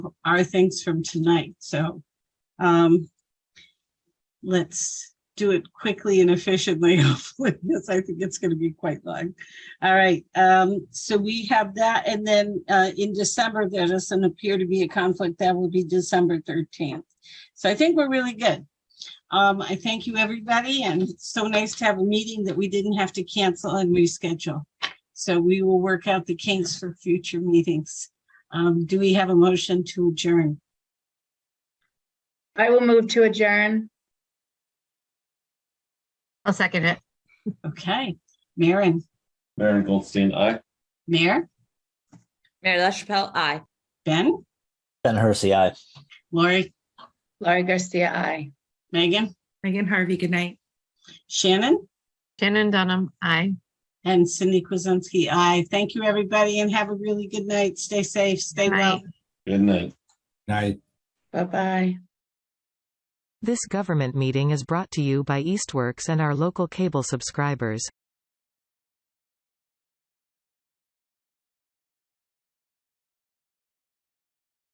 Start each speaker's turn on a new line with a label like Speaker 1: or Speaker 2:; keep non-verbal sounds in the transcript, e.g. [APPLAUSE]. Speaker 1: are things from tonight, so. Um, let's do it quickly and efficiently, [LAUGHS] hopefully, because I think it's gonna be quite long. All right, um, so we have that, and then, uh, in December, there doesn't appear to be a conflict, that will be December thirteenth. So I think we're really good. Um, I thank you, everybody, and it's so nice to have a meeting that we didn't have to cancel and reschedule. So we will work out the kinks for future meetings. Um, do we have a motion to adjourn?
Speaker 2: I will move to adjourn.
Speaker 3: I'll second it.
Speaker 1: Okay, Maren,
Speaker 4: Maren Goldstein, aye.
Speaker 1: Mayor,
Speaker 5: Mary LaChapelle, aye.
Speaker 1: Ben,
Speaker 6: Ben Hersey, aye.
Speaker 1: Lori,
Speaker 2: Laurie Garcia, aye.
Speaker 1: Megan,
Speaker 7: Megan Harvey, good night.
Speaker 1: Shannon,
Speaker 3: Shannon Dunham, aye.
Speaker 1: and Cindy Kuzensky. I thank you, everybody, and have a really good night. Stay safe, stay well.
Speaker 3: Night.
Speaker 4: Good night.
Speaker 8: Night.
Speaker 2: Bye-bye.
Speaker 9: This government meeting is brought to you by Eastworks and our local cable subscribers.